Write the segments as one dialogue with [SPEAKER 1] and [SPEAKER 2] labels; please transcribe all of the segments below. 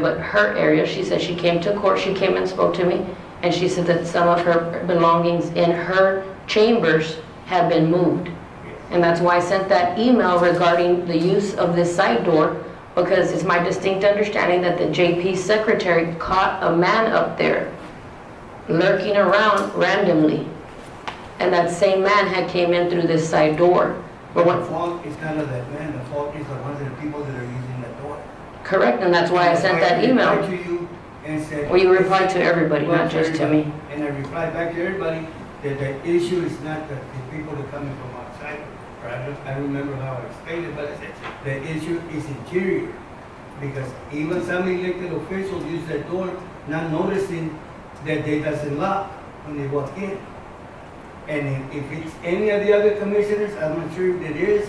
[SPEAKER 1] But her area, she said she came to court, she came and spoke to me, and she said that some of her belongings in her chambers had been moved. And that's why I sent that email regarding the use of this side door, because it's my distinct understanding that the JP secretary caught a man up there lurking around randomly. And that same man had came in through this side door. But
[SPEAKER 2] The
[SPEAKER 1] what,
[SPEAKER 2] fault is kind of that man, the fault is the ones that are people that are using that door.
[SPEAKER 1] correct, and that's why I sent that
[SPEAKER 2] I
[SPEAKER 1] email.
[SPEAKER 2] replied to you and said.
[SPEAKER 1] Well, you replied to everybody,
[SPEAKER 2] Well,
[SPEAKER 1] not just to
[SPEAKER 2] everybody.
[SPEAKER 1] me.
[SPEAKER 2] And I replied back to everybody that the issue is not that the people that coming from outside, or I don't, I don't remember how I explained it, but I said, the issue is interior. Because even some elected officials use that door, not noticing that they doesn't lock when they walk in. And if if it's any of the other commissioners, I'm not sure if it is,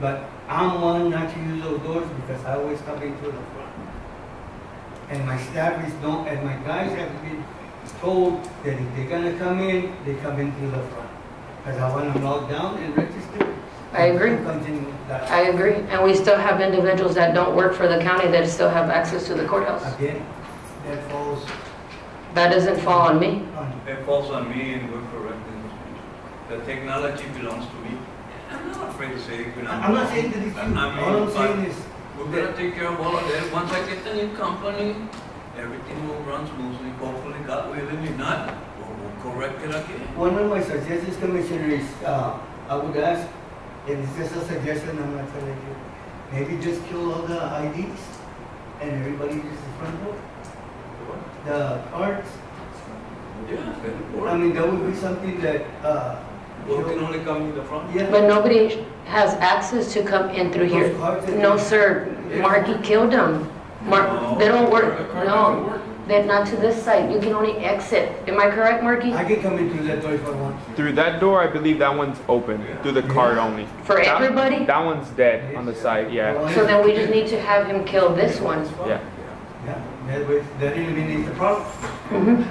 [SPEAKER 2] but I'm one not to use those doors because I always come into the front. And my staff is don't, and my guys have been told that if they're gonna come in, they come in through the front. Because I want them locked down and registered.
[SPEAKER 1] I agree.
[SPEAKER 2] Continue that.
[SPEAKER 1] I agree, and we still have individuals that don't work for the county that still have access to the courthouse.
[SPEAKER 2] Again, that falls
[SPEAKER 1] That doesn't fall on me.
[SPEAKER 2] on,
[SPEAKER 3] It falls on me and we're correcting those people. The technology belongs to me. I'm not afraid to say it belongs.
[SPEAKER 2] I'm not saying that it's you,
[SPEAKER 3] I mean,
[SPEAKER 2] all I'm
[SPEAKER 3] but
[SPEAKER 2] saying is,
[SPEAKER 3] We're gonna take care of all of that. Once I get the new company, everything will run smoothly, hopefully, God willing, if not, we'll we'll correct it again.
[SPEAKER 2] one of my suggestions, Commissioner, is, uh, I would ask, and it's just a suggestion, I'm not telling you, maybe just kill all the IDs and everybody uses the front door, the cards.
[SPEAKER 3] Yeah, that'll work.
[SPEAKER 2] I mean, that would be something that, uh, you
[SPEAKER 3] Well, we can
[SPEAKER 2] know,
[SPEAKER 3] only come in the front.
[SPEAKER 2] yeah.
[SPEAKER 1] But nobody has access to come in through here.
[SPEAKER 2] Those cards that
[SPEAKER 1] No,
[SPEAKER 2] you-
[SPEAKER 1] sir. Marky killed them. Mark, they don't work, no. They're not to this side. You can only exit. Am I correct, Marky?
[SPEAKER 2] I can come in through that door if I want.
[SPEAKER 4] Through that door, I believe that one's open. Through the card only.
[SPEAKER 1] For
[SPEAKER 4] That-
[SPEAKER 1] everybody?
[SPEAKER 4] That one's dead on the side, yeah.
[SPEAKER 1] So then we just need to have him kill this one.
[SPEAKER 4] Yeah.
[SPEAKER 2] Yeah, that way, that eliminates the problem.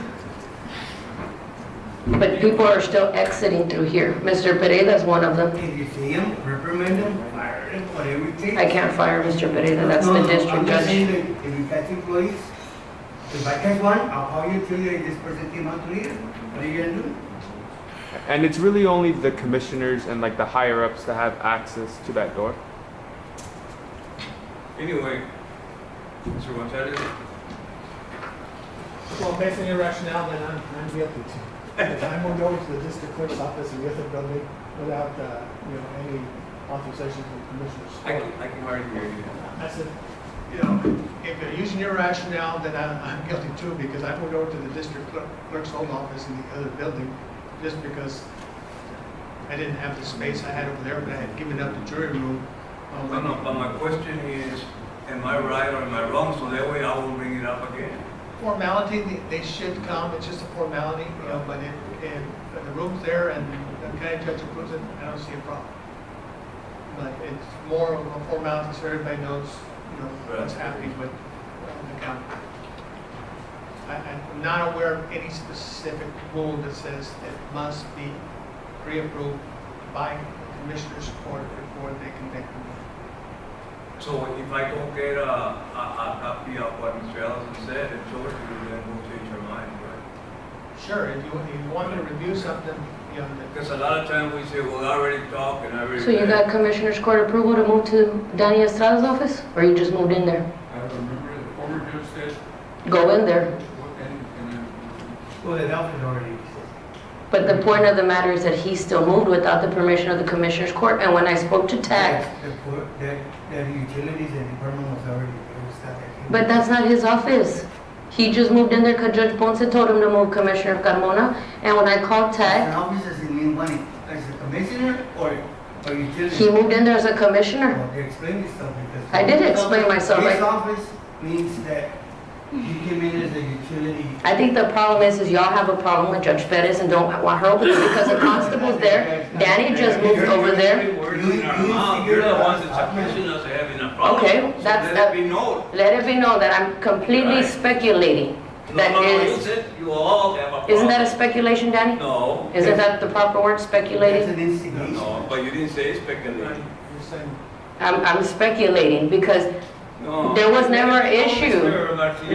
[SPEAKER 1] But people are still exiting through here. Mr. Pereira's one of them.
[SPEAKER 2] If you see him, reprimand him, fire him, whatever it takes.
[SPEAKER 1] I can't fire Mr. Pereira, that's the
[SPEAKER 2] No, no, I'm
[SPEAKER 1] district
[SPEAKER 2] just saying
[SPEAKER 1] judge.
[SPEAKER 2] that if you catch employees, if I catch one, I'll call you, tell you "Hey, this person came out to here, what are you gonna do?
[SPEAKER 4] And it's really only the commissioners and like the higher ups that have access to that door.
[SPEAKER 3] Anyway, Mr. Gonzalez,
[SPEAKER 5] Well, based on your rationale, then I'm, I'm guilty too. Because I moved over to the district clerk's office in the other building without, uh, you know, any authorization from commissioners.
[SPEAKER 3] I can, I can hardly hear you.
[SPEAKER 5] I said, you know, if they're using your rationale, then I'm, I'm guilty too, because I moved over to the district clerk- clerk's home office in the other building just because I didn't have the space I had over there, but I had given up the jury room. um,
[SPEAKER 3] No, no, but my question is, am I right or am I wrong? So that way I will bring it up again.
[SPEAKER 5] formality, they- they should come, it's just a formality, you know, but if, if the room's there and the county judge approves it, I don't see a problem. But it's more of a formality, so everybody knows, you know, what's happening with uh, the county. I, I'm not aware of any specific rule that says it must be pre-approved by the commissioners court before they can make the move.
[SPEAKER 3] So if I don't get a, a, a copy of what Mr. Allison said and show it to you, then we'll change your mind, right?
[SPEAKER 5] Sure, if you, if you want to review something, you know, that
[SPEAKER 3] Because a lot of times we say, well, I already talked and I already.
[SPEAKER 1] So you got Commissioner's Court approval to move to Danny Estrada's office? Or you just moved in there?
[SPEAKER 6] I remember the former judge said,
[SPEAKER 1] Go in there.
[SPEAKER 6] what- and, and
[SPEAKER 2] Well, that outfit already exists.
[SPEAKER 1] But the point of the matter is that he still moved without the permission of the Commissioner's Court. And when I spoke to TAC,
[SPEAKER 2] That- The, poor- that, that utilities and department was already, there, it's not that.
[SPEAKER 1] But that's not his office. He just moved in there because Judge Ponce told him to move Commissioner Carmona. And when I called
[SPEAKER 2] An
[SPEAKER 1] Ted,
[SPEAKER 2] officer doesn't mean money, as a commissioner or, or utility.
[SPEAKER 1] he moved in there as a commissioner.
[SPEAKER 2] Well, Explain yourself because.
[SPEAKER 1] I did explain myself,
[SPEAKER 2] His
[SPEAKER 1] like-
[SPEAKER 2] office means that you came in as a utility.
[SPEAKER 1] I think the problem is, is y'all have a problem with Judge Perez and don't want her open because the constable's there. Danny just moved over there.
[SPEAKER 3] You, you, you're the ones that's accusing us of having a problem.
[SPEAKER 1] Okay,
[SPEAKER 3] So
[SPEAKER 1] that's-
[SPEAKER 3] Let it be known.
[SPEAKER 1] Let it be known that I'm completely
[SPEAKER 3] Right.
[SPEAKER 1] speculating.
[SPEAKER 3] No,
[SPEAKER 1] That
[SPEAKER 3] no, no, you
[SPEAKER 1] is,
[SPEAKER 3] said you all have a problem.
[SPEAKER 1] isn't that a speculation, Danny?
[SPEAKER 3] No,
[SPEAKER 1] Isn't that the proper word,
[SPEAKER 2] That's
[SPEAKER 1] speculating?
[SPEAKER 2] an
[SPEAKER 3] no,
[SPEAKER 2] instigation.
[SPEAKER 3] no, but you didn't say speculation.
[SPEAKER 5] you're saying.
[SPEAKER 1] I'm, I'm speculating because
[SPEAKER 3] No.
[SPEAKER 1] There was never an issue.
[SPEAKER 3] Mr. Garcia.